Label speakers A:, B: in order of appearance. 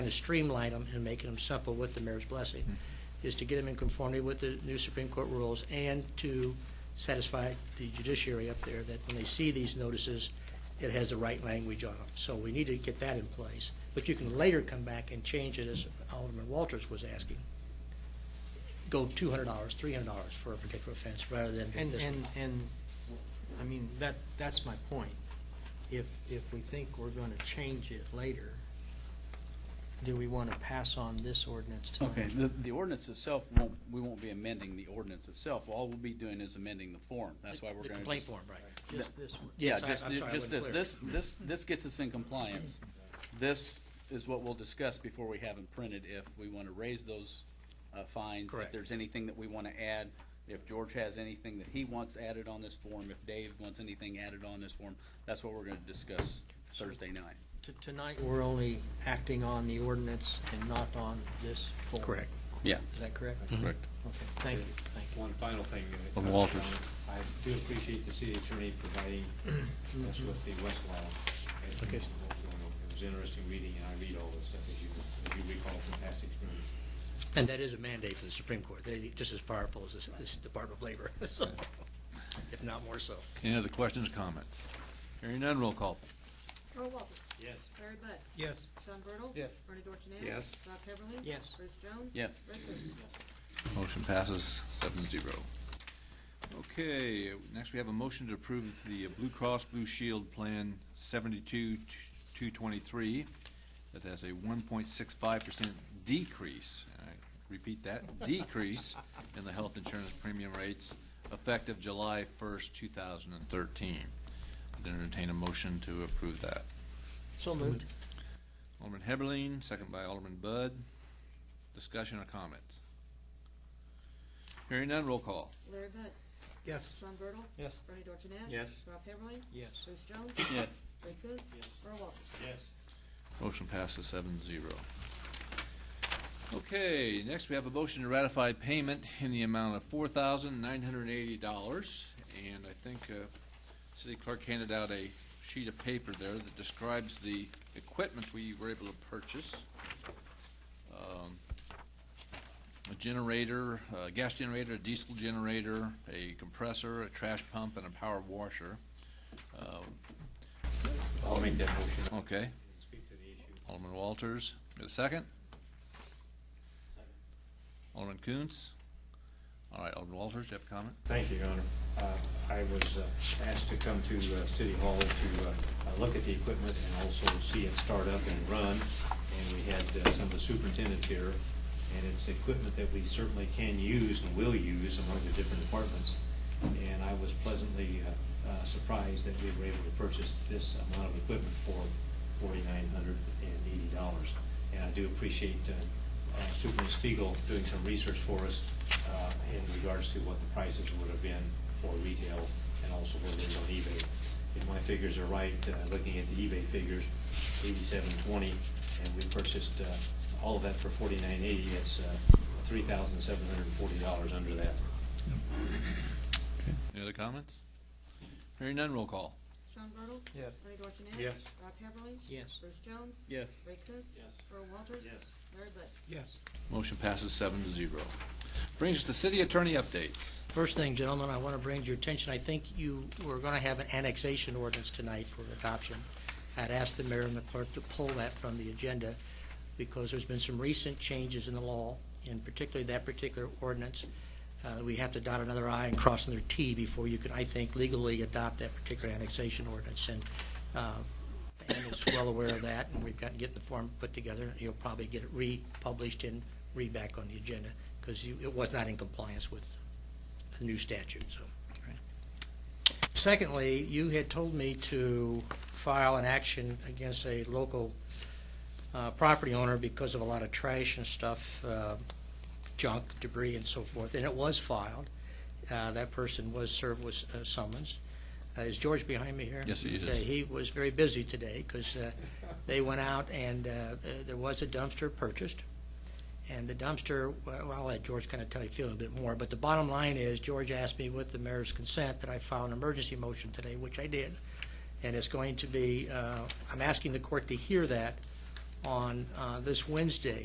A: to streamline them and making them simple with the mayor's blessing, is to get them in conformity with the new Supreme Court rules and to satisfy the judiciary up there that when they see these notices, it has the right language on them. So we need to get that in place. But you can later come back and change it, as Alderman Walters was asking. Go two hundred dollars, three hundred dollars for a particular offense rather than
B: And,
A: this one.
B: and, and, I mean, that, that's my point. If, if we think we're gonna change it later, do we wanna pass on this ordinance tonight?
C: Okay, the, the ordinance itself won't, we won't be amending the ordinance itself. All we'll be doing is amending the form. That's why we're
A: The
C: gonna just.
A: complaint form, right.
B: Just this one?
C: Yeah,
A: Yes, I-
C: just,
A: I'm sorry, I
C: just this,
A: wasn't
C: this, this, this gets us in compliance. This is what we'll discuss before we have them printed, if we want to raise those uh, fines. If
A: Correct.
C: there's anything that we want to add, if George has anything that he wants added on this form, if Dave wants anything added on this form, that's what we're going to discuss Thursday night.
B: T- Tonight, we're only acting on the ordinance and not on this form.
A: Correct.
C: Yeah.
B: Is that correct?
D: Correct.
B: Okay, thank you, thank you.
E: One final thing. that
D: On
E: touches
D: Walters.
E: on- I do appreciate the city attorney providing us with the Westlaw. education. It was interesting reading, and I read all this stuff, as you, as you recall, fantastic experience.
A: And that is a mandate from the Supreme Court. They're just as powerful as this, this Department of Labor, so, if not more so.
D: Any other questions, comments? Hearing none, roll call.
F: Earl Walters.
E: Yes.
F: Larry Bud.
B: Yes.
F: Sean Bertle.
B: Yes.
F: Bernie Dorchenez.
A: Yes.
F: Rob Heatherling.
B: Yes.
F: Bruce Jones.
C: Yes.
F: Ray Coontz.
D: Motion passes seven zero. Okay, next we have a motion to approve the Blue Cross Blue Shield Plan seventy-two, two twenty-three. That has a one point six five percent decrease, and I repeat that, decrease in the health insurance premium rates effective July first, two thousand and thirteen. I'd entertain a motion to approve that.
B: So moved.
D: Alderman Heberlin, second by Alderman Bud. Discussion or comments? Hearing none, roll call.
F: Larry Bud.
B: Yes.
F: Sean Bertle.
B: Yes.
F: Bernie Dorchenez.
E: Yes.
F: Rob Heatherling.
B: Yes.
F: Bruce Jones.
C: Yes.
F: Ray Coontz. Earl Walters.
E: Yes.
D: Motion passes seven zero. Okay, next we have a motion to ratify payment in the amount of four thousand nine hundred and eighty dollars. And I think, uh, City Clerk handed out a sheet of paper there that describes the equipment we were able to purchase. Um, A generator, a gas generator, a diesel generator, a compressor, a trash pump, and a power washer. Um,
E: I'll make that motion.
D: Okay.
E: Speak to the issue.
D: Alderman Walters, get a second? Alderman Coontz? All right, Alderman Walters, do you have a comment?
E: Thank you, Your Honor. Uh, I was uh, asked to come to uh, City Hall to uh, uh, look at the equipment and also see it start up and run. And we had uh, some of the superintendents here, and it's equipment that we certainly can use and will use among the different departments. And I was pleasantly uh, uh, surprised that we were able to purchase this amount of equipment for forty-nine hundred and eighty dollars. And I do appreciate uh, uh, Superintendent Spiegel doing some research for us uh, in regards to what the prices would have been for retail and also what it is on eBay. If my figures are right, uh, looking at the eBay figures, eighty-seven twenty, and we purchased uh, all of that for forty-nine eighty, it's uh, three thousand seven hundred and forty dollars under that.
D: Any other comments? Hearing none, roll call.
F: Sean Bertle.
B: Yes.
F: Bernie Dorchenez.
E: Yes.
F: Rob Heatherling.
B: Yes.
F: Bruce Jones.
C: Yes.
F: Ray Coontz.
E: Yes.
F: Earl Walters.
E: Yes.
F: Larry Bud.
B: Yes.
D: Motion passes seven to zero. Brings us to city attorney updates.
A: First thing, gentlemen, I want to bring to your attention, I think you were going to have an annexation ordinance tonight for adoption. I'd asked the mayor and the clerk to pull that from the agenda because there's been some recent changes in the law, and particularly that particular ordinance. Uh, We have to dot another i and cross another t before you can, I think, legally adopt that particular annexation ordinance. And uh, and is well aware of that, and we've got to get the form put together. You'll probably get it republished and read back on the agenda, because it was not in compliance with the new statute, so. Secondly, you had told me to file an action against a local uh, property owner because of a lot of trash and stuff, uh, junk, debris, and so forth, and it was filed. Uh, That person was served with uh, summons. Uh, Is George behind me here?
D: Yes, he is.
A: Okay, He was very busy today because they went out and uh, uh, there was a dumpster purchased. And the dumpster, well, I'll let George kind of tell you, feel a bit more, but the bottom line is, George asked me with the mayor's consent that I file an emergency motion today, which I did. And it's going to be, uh, I'm asking the court to hear that on uh, this Wednesday